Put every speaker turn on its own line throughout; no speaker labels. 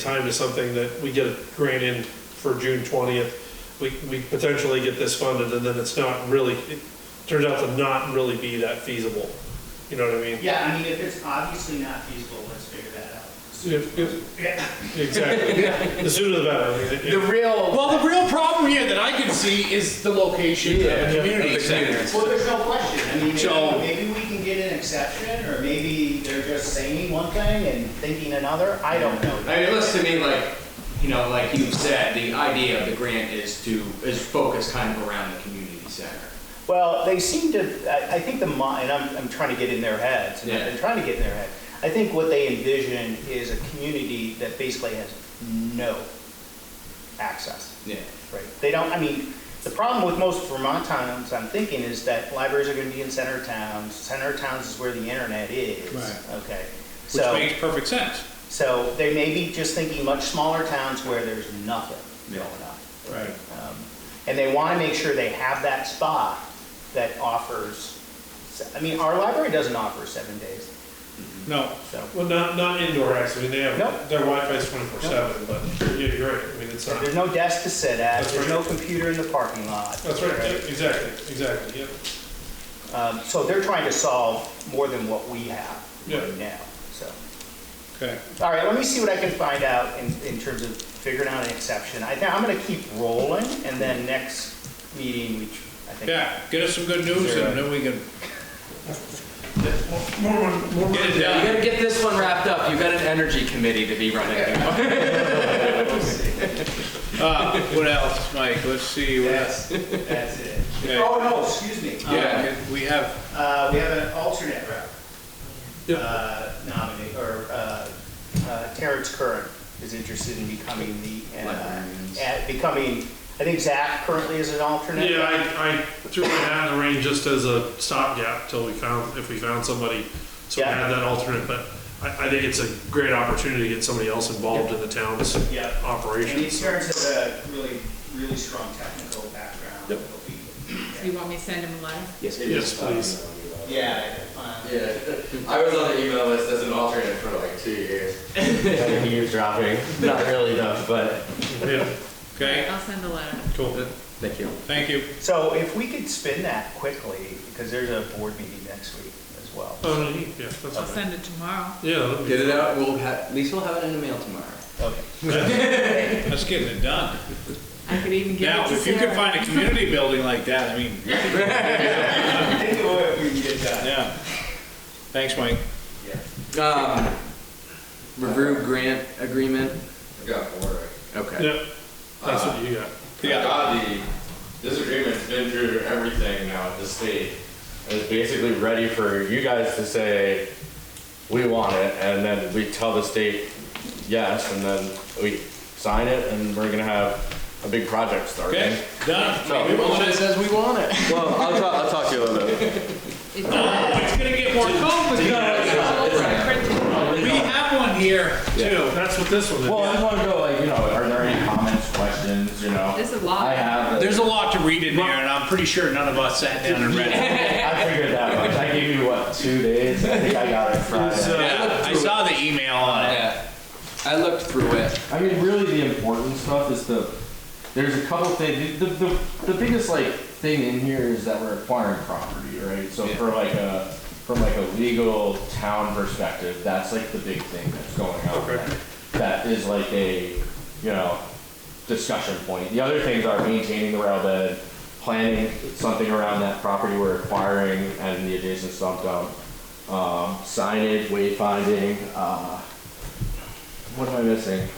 time to something that we get a grant in for June twentieth, we, we potentially get this funded, and then it's not really, it turns out to not really be that feasible. You know what I mean?
Yeah, I mean, if it's obviously not feasible, let's figure that out.
If- if-
Yeah.
Exactly, the sooner the better. I mean, it-
The real, well, the real problem here that I can see is the location of
Yeah,
the community
of the community.
center.
Well, there's no question. I mean,
So-
maybe maybe we can get an exception, or maybe they're just saying one thing and thinking another. I don't know.
I mean, it looks to me like, you know, like you said, the idea of the grant is to, is focused kind of around the community center.
Well, they seem to, I, I think the, mo- and I'm, I'm trying to get in their heads, and I've been
Yeah.
trying to get in their head. I think what they envision is a community that basically has no access.
Yeah.
Right. They don't, I mean, the problem with most Vermont towns, I'm thinking, is that libraries are gonna be in center towns. Center towns is where the internet is.
Right.
Okay.
Which
So,
makes perfect sense.
so they may be just thinking much smaller towns where there's nothing
Yeah.
going on.
Right.
Um, And they wanna make sure they have that spot that offers, se- I mean, our library doesn't offer seven days,
No.
so.
Well, not, not indoor acts, I mean, they have,
Nope.
their Wi-Fi is twenty-four seven, but you're, you're right, I mean, it's not,
There's no desk to sit at,
That's
there's no
right.
computer in the parking lot.
that's right, yeah, exactly, exactly, yeah.
Um, So they're trying to solve more than what we have
Yeah.
right now, so.
Okay.
All right, let me see what I can find out in, in terms of figuring out an exception. I think, I'm gonna keep rolling, and then next meeting, we, tr- I think.
Yeah, get us some good news and then we can
More, more, more.
get it
You
done.
gotta get this one wrapped up, you've got an energy committee to be running.
Uh, what else, Mike? Let's see. what else.
That's, that's it.
Okay.
Oh, no, excuse me.
Yeah, we have,
Uh, we have an alternate rep. Uh, nominee, or, uh, uh, Terrence Curran is interested in becoming the, uh,
Librarians.
at- becoming, I think Zach currently is an alternate.
Yeah, I, I threw my hat in the ring just as a stopgap till we found, if we found somebody, so we
Yeah.
had that alternate, but I, I think it's a great opportunity to get somebody else involved in the town's
Yeah. And
operations.
Terrence has a really, really strong technical background.
Yep.
He'll be-
You want me to send him a letter?
Yes,
Yes, please.
Yeah. um,
Yeah, I was on the email list as an alternate for like two years. Like years dropping, not really enough, but.
Yeah,
okay,
I'll send a letter.
cool.
Thank you.
thank you.
So if we could spin that quickly, because there's a board meeting next week as well.
Oh, no, yeah, that's
I'll
fine.
send it tomorrow.
Yeah, that'd be-
Get it out, we'll have, at least we'll have it in the mail tomorrow.
Okay.
That's getting it done.
I could even give it
Now,
to
if you could
Sarah.
find a community building like that, I mean,
I think it would if we can get that.
yeah. Thanks, Mike.
Um, review grant agreement,
I got four.
okay.
yeah, that's what you got.
Yeah.
I got the, this agreement's been through everything now at uh, the state. And It's basically ready for you guys to say, we want it, and then we tell the state yes, and then we sign it, and we're gonna have a big project starting.
Okay, done.
So-
We want it.
says we want it.
Well, I'll talk, I'll talk to you a little bit.
It's
Oh, it's gonna get more
Oh
complicated. We have one here too.
That's what this one is.
Well, I just want to go like, you know, are there any comments, questions, you know?
There's a lot.
I have,
There's a lot to read in there, and I'm pretty sure none of us sat down and read it.
I figured that much. I gave you what, two days? I think I got it Friday.
Yeah, I saw the email on it.
Yeah, I looked through it.
I mean, really the important stuff is the, there's a couple things, the, the, the biggest like thing in here is that we're acquiring property, right? So
Yeah.
for like a, from like a legal town perspective, that's like the big thing that's going on.
Okay.
That is like a, you know, discussion point. The other things are maintaining the rail bed, planning something around that property we're acquiring and the adjacent sump dump, um, signage, wayfinding, uh, what am I missing?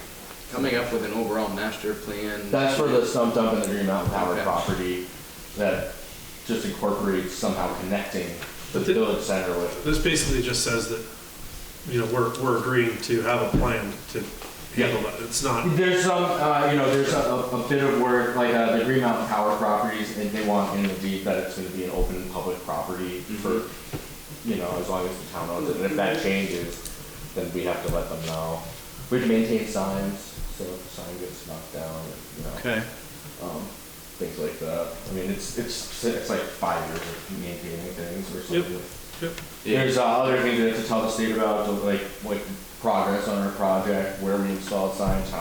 Coming up with an overall master plan.
That's for the stump dump and the Green Mountain Power
Okay.
property that just incorporates somehow connecting the
But the-
village center with.
This basically just says that, you know, we're, we're agreeing to have a plan to handle that. It's not,
There's some, uh, you know, there's a, a a bit of work, like, uh, the Green Mountain Power properties, and they want in the deed that it's gonna be an open public property for, you know, as long as the town owns it, and if that changes, then we have to let them know. We have to maintain signs, so if the sign gets knocked down, you know.
Okay.
um, things like that. I mean, it's, it's, it's like five years of maintaining things or
Yep.
something.
Yeah.
There's uh, other things that to tell the state about, like, like progress on our project, where we installed signs, how